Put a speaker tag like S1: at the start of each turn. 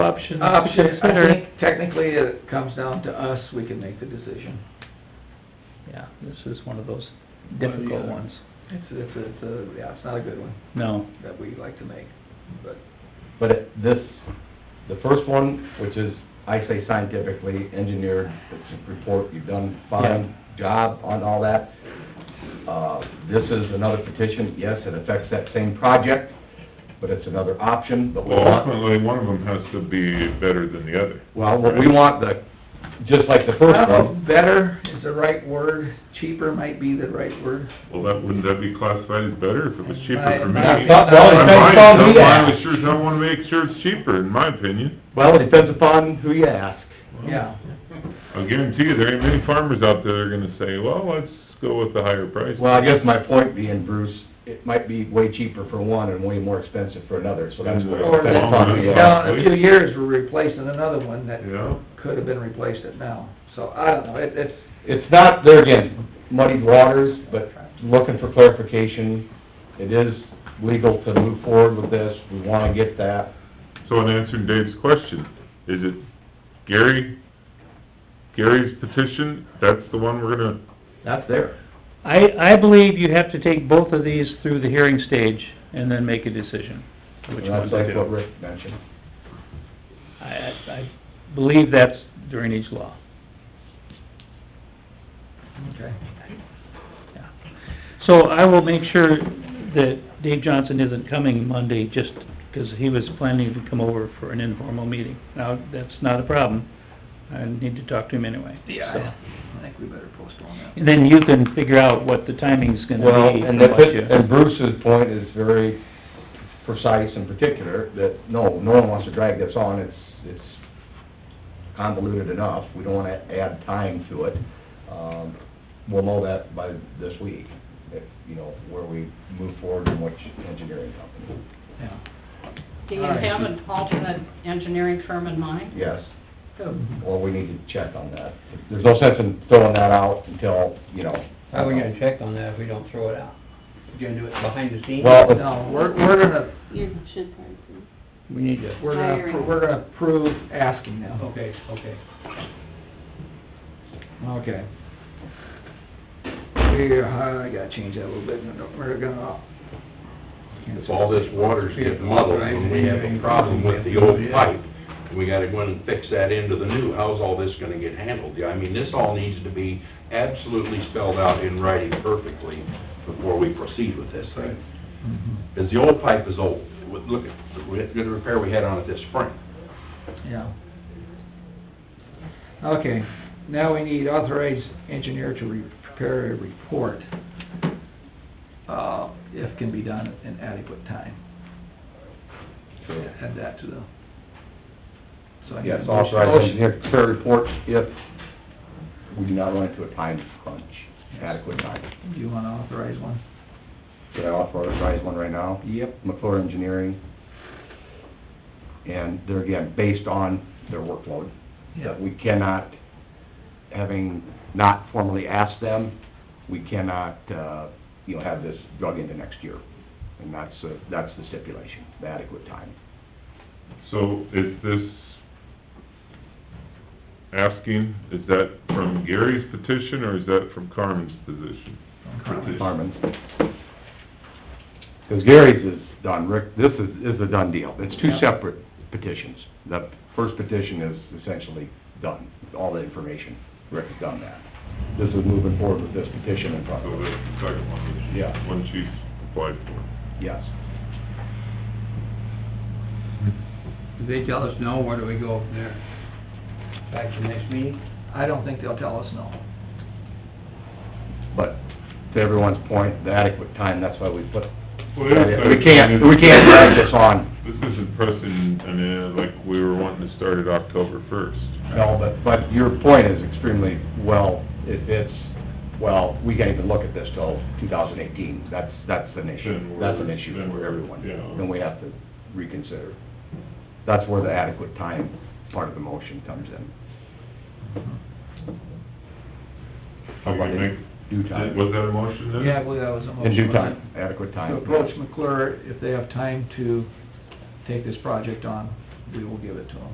S1: options.
S2: Uh, options, I
S1: Okay.
S2: think technically it comes down to us, we can make the decision.
S1: Yeah, this is one of those
S3: the
S1: difficult
S3: other.
S1: ones.
S2: It's, it's, it's, a- yeah, it's not a good one
S1: No,
S2: that we like to make, but
S4: But it- this, the first one, which is, I say scientifically engineered, it's a report, you've done fine job on all that. Uh, This is another petition, yes, it affects that same project, but it's another option, but we
S5: Well,
S4: want,
S5: ultimately, one of them has to be better than the other.
S4: well, what we want the, just like the
S2: I
S4: first
S2: don't know
S4: one,
S2: if better is the right word, cheaper might be the right word.
S5: Well, that, wouldn't that be classified as better if it was cheaper for me?
S2: Right.
S4: Well, it depends
S5: On
S4: upon who
S5: mine,
S4: you
S5: I
S4: ask.
S5: would sure as hell wanna make sure it's cheaper, in my opinion.
S4: Well, it depends upon who you ask.
S2: Yeah.
S5: I guarantee you, there ain't many farmers out there that are gonna say, well, let's go with the higher price.
S4: Well, I guess my point being, Bruce, it might be way cheaper for one and way more expensive for another, so that's what it
S2: Or
S4: depends upon who you
S5: Yeah.
S2: down in
S4: ask.
S2: a few years, we're replacing another one that
S5: Yeah,
S2: could have been replaced at now. So I don't know, it, it's,
S4: It's not, there again, muddied waters, but looking for clarification, it is legal to move forward with this, we wanna get that.
S5: so in answering Dave's question, is it Gary, Gary's petition, that's the one we're gonna,
S4: That's there.
S1: I, I believe you have to take both of these through the hearing stage and then make a decision, which one
S4: That's
S1: to
S4: like what
S1: do.
S4: Rick mentioned.
S1: I, I I believe that's drainage law,
S2: okay.
S1: yeah. So I will make sure that Dave Johnson isn't coming Monday just because he was planning to come over for an informal meeting. Now, that's not a problem. I need to talk to him anyway.
S2: Yeah, I think we better postpone that.
S1: And then you can figure out what the timing's gonna be.
S4: Well, and
S1: from
S4: that,
S1: what you-
S4: and Bruce's point is very precise and particular, that no, no one wants to drag this on, it's, it's convoluted enough, we don't wanna add time to it. Um, we'll know that by this week, if, you know, where we move forward and which engineering company,
S2: Yeah.
S6: Do you have an alternate engineering firm in mind?
S4: yes,
S6: Who?
S4: or we need to check on that. There's no sense in throwing that out until, you know.
S7: How are we gonna check on that if we don't throw it out? You gonna do it behind the scenes?
S4: Well, it's-
S2: No, we're, we're gonna,
S8: You should probably see.
S7: We need to,
S2: we're gonna,
S8: Hiring.
S2: we're gonna approve asking
S1: Oh.
S2: them.
S7: okay, okay.
S2: Okay. We, uh, I gotta change that a little bit, No, we're gonna.
S9: If all this water's getting muddled, and we have a problem with the old pipe, we gotta go in and fix that into the new, how's all this gonna get handled? Yeah, I mean, this all needs to be absolutely spelled out in writing perfectly before we proceed with this thing.
S2: Mm-hmm.
S9: Because the old pipe is old, With- look at, with the repair we had on it this spring.
S2: Yeah. Okay, now we need authorized engineer to re- prepare a report, uh, if can be done in adequate time. Add that to the. So I need a
S4: Yes,
S2: motion-
S4: authorized engineer to prepare reports if we do not run into a time crunch, adequate time.
S2: Do you wanna authorize one?
S4: Should I authorize one right now?
S2: Yep.
S4: McClure Engineering. And they're, again, based on their workload.
S2: Yeah.
S4: That we cannot, having not formally asked them, we cannot, uh, you know, have this drug into next year. And that's, uh, that's the stipulation, the adequate time.
S5: so is this asking, is that from Gary's petition, or is that from Carmen's position? Petition.
S4: Harmon. Because Gary's is done, Rick, this is, is a done deal. It's two
S2: Yeah.
S4: separate petitions. The first petition is essentially done, all the information, Rick's done that. This is moving forward with this petition in front
S5: So
S4: of
S5: that's
S4: us,
S5: the second one.
S4: Yeah.
S5: One she's applied for.
S4: yes.
S7: If they tell us no, where do we go from there? Back to next meeting?
S2: I don't think they'll tell us no.
S4: But to everyone's point, the adequate time, that's why we put,
S5: Well, the other
S4: we
S5: side-
S4: can't, we can't drag this on.
S5: This isn't pressing, I mean, like, we were wanting to start it October first.
S4: No, but, but your point is extremely well, it, it's, well, we can't even look at this till two thousand eighteen, that's, that's an
S5: Then
S4: issue.
S5: we're-
S4: That's an issue
S5: then
S4: for
S5: we're-
S4: everyone,
S5: yeah.
S4: then we have to reconsider. That's where the adequate time part of the motion comes in.
S5: How about it?
S4: Oh, Due time.
S5: Was that a motion then?
S2: Yeah, I believe that was a motion.
S4: In due
S2: wasn't it?
S4: time, adequate time.
S2: To approach McClure, if they have time to take this project on, we will give it to them.